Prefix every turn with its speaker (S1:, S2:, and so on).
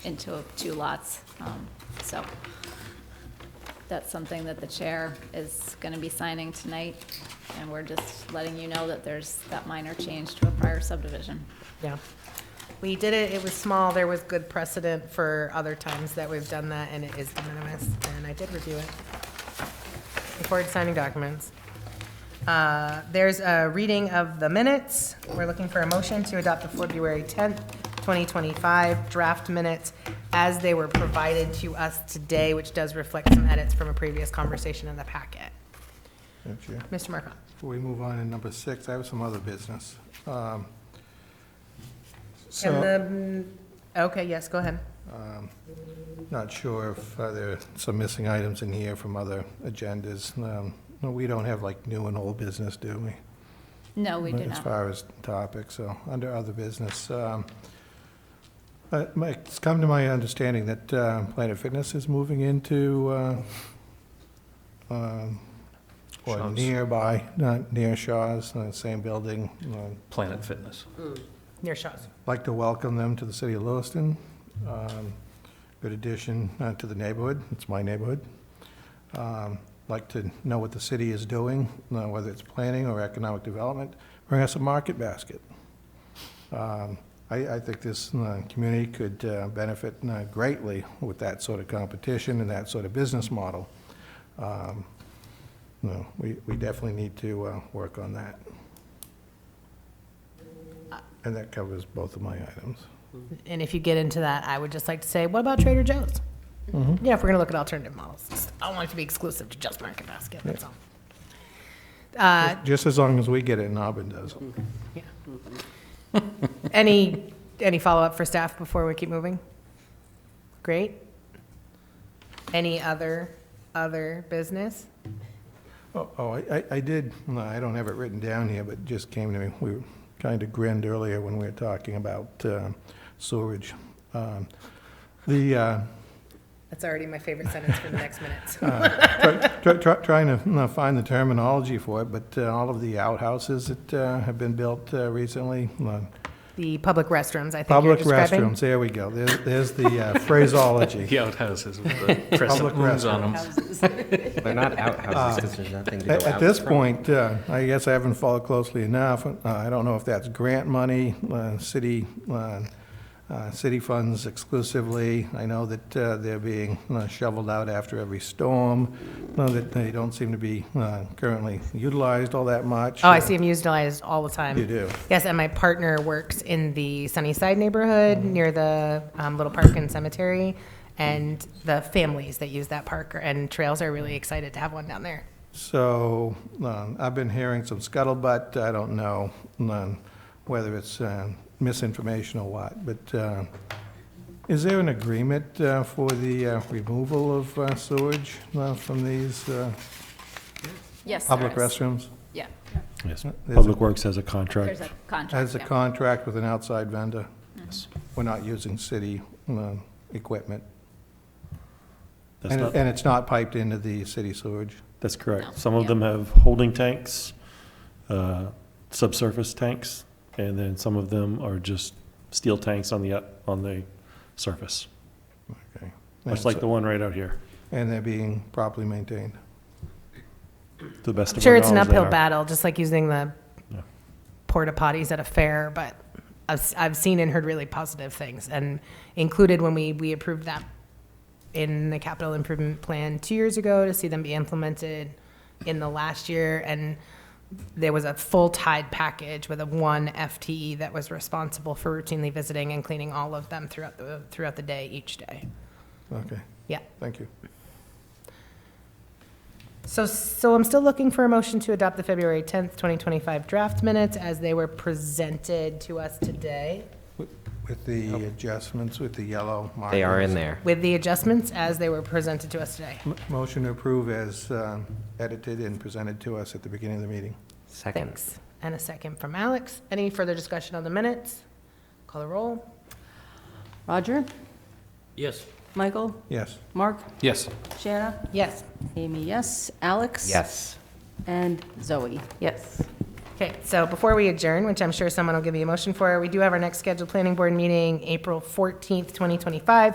S1: into two lots. Um, So that's something that the chair is going to be signing tonight, and we're just letting you know that there's that minor change to a prior subdivision.
S2: Yeah. We did it, it was small, there was good precedent for other times that we've done that, and it is de minimis, and I did review it. Before signing documents. Uh, There's a reading of the minutes. We're looking for a motion to adopt the February 10th, 2025 draft minutes as they were provided to us today, which does reflect some edits from a previous conversation in the packet.
S3: Madam Chair.
S2: Mr. Markon?
S3: Before we move on to number six, I have some other business. Um,
S2: And
S3: So,
S2: the, mm, okay, yes, go ahead.
S3: not sure if uh, there are some missing items in here from other agendas. Um, no, We don't have like new and old business, do we?
S1: No, we do
S3: As
S1: not.
S3: far as topics, so, under other business. um, uh, my- It's come to my understanding that uh, Planet Fitness is moving into, uh, um, or
S4: Shaw's.
S3: nearby, not near Shaw's, uh, same building, uh,
S4: Planet Fitness.
S2: Near Shaw's.
S3: like to welcome them to the city of Lewiston. Um, Good addition uh, to the neighborhood, it's my neighborhood. Um, Like to know what the city is doing, uh, whether it's planning or economic development, bring us a market basket. Um, I, I think this uh, community could uh, benefit uh, greatly with that sort of competition and that sort of business model. Um, No, we, we definitely need to uh, work on that. And that covers both of my items.
S2: And if you get into that, I would just like to say, what about Trader Joe's?
S3: Mm-hmm.
S2: Yeah, if we're gonna look at alternative models, I don't want it to be exclusive to just Market Basket, that's all. Uh,
S3: Just as long as we get it and Auburn does.
S2: Uh, any, any follow-up for staff before we keep moving? Great. Any other, other business?
S3: Oh, oh, I, I- I did, no, I don't have it written down here, but it just came to me. We kind of grinned earlier when we were talking about um, sewerage. Um, The, uh,
S2: That's already my favorite sentence for the next minute.
S3: try- try- trying to you know, find the terminology for it, but uh, all of the outhouses that uh, have been built uh, recently, uh,
S2: The public restrooms, I think you're
S3: public
S2: describing.
S3: restrooms, there we go. There's there's the uh, phraseology.
S4: The outhouses with the
S3: Public
S4: crescent moons on them.
S5: They're not outhouses because there's nothing to go out
S3: At at this
S5: from.
S3: point, uh, I guess I haven't followed closely enough. Uh, I don't know if that's grant money, uh, city, uh, uh, city funds exclusively. I know that uh, they're being uh, shoveled out after every storm, uh, that they don't seem to be uh, currently utilized all that much.
S2: Oh, I see them utilized all the time.
S3: You do.
S2: Yes, and my partner works in the Sunnyside neighborhood near the um, Little Park and Cemetery. And the families that use that park and trails are really excited to have one down there.
S3: So, um, I've been hearing some scuttlebutt, I don't know um, whether it's um, misinformation or what, but uh, is there an agreement uh, for the uh, removal of uh, sewage uh, from these uh,
S1: Yes, there
S3: public
S1: is.
S3: restrooms?
S1: Yeah,
S3: There's
S6: Yes,
S3: a-
S6: Public Works has a contract.
S1: there's a contract.
S3: Has a
S1: yeah.
S3: contract with an outside vendor?
S6: Yes.
S3: We're not using city um, equipment?
S6: That's
S3: And
S6: not-
S3: it- and it's not piped into the city sewage?
S6: That's
S1: No,
S6: correct. Some of
S1: yeah.
S6: them have holding tanks, uh, subsurface tanks, and then some of them are just steel tanks on the, up- on the surface,
S3: Okay.
S6: much like the one right out here,
S3: And they're being properly maintained?
S6: to the best
S2: I'm
S6: of our
S2: sure it's
S6: knowledge.
S2: an
S6: they
S2: uphill
S6: are.
S2: battle, just like using the
S6: Yeah.
S2: porta potties at a fair, but I've, s- I've seen and heard really positive things and included when we, we approved that in the capital improvement plan two years ago to see them be implemented in the last year. And there was a full tide package with a one FTE that was responsible for routinely visiting and cleaning all of them throughout the, throughout the day, each day.
S3: Okay,
S2: Yeah.
S3: thank you.
S2: So, so I'm still looking for a motion to adopt the February 10th, 2025 draft minutes as they were presented to us today,
S3: With the adjustments, with the yellow markers?
S5: They are in there.
S2: with the adjustments as they were presented to us today.
S3: M- Motion to approve as um, edited and presented to us at the beginning of the meeting.
S5: Second.
S2: Thanks. And a second from Alex. Any further discussion on the minutes? Call the roll.
S7: Roger?
S4: Yes.
S7: Michael?
S3: Yes.
S7: Mark?
S4: Yes.
S7: Shanna?
S2: Yes.
S7: Amy, yes. Alex?
S5: Yes.
S7: And Zoe, yes.
S2: Okay, so before we adjourn, which I'm sure someone will give you a motion for, we do have our next scheduled planning board meeting, April 14th, 2025.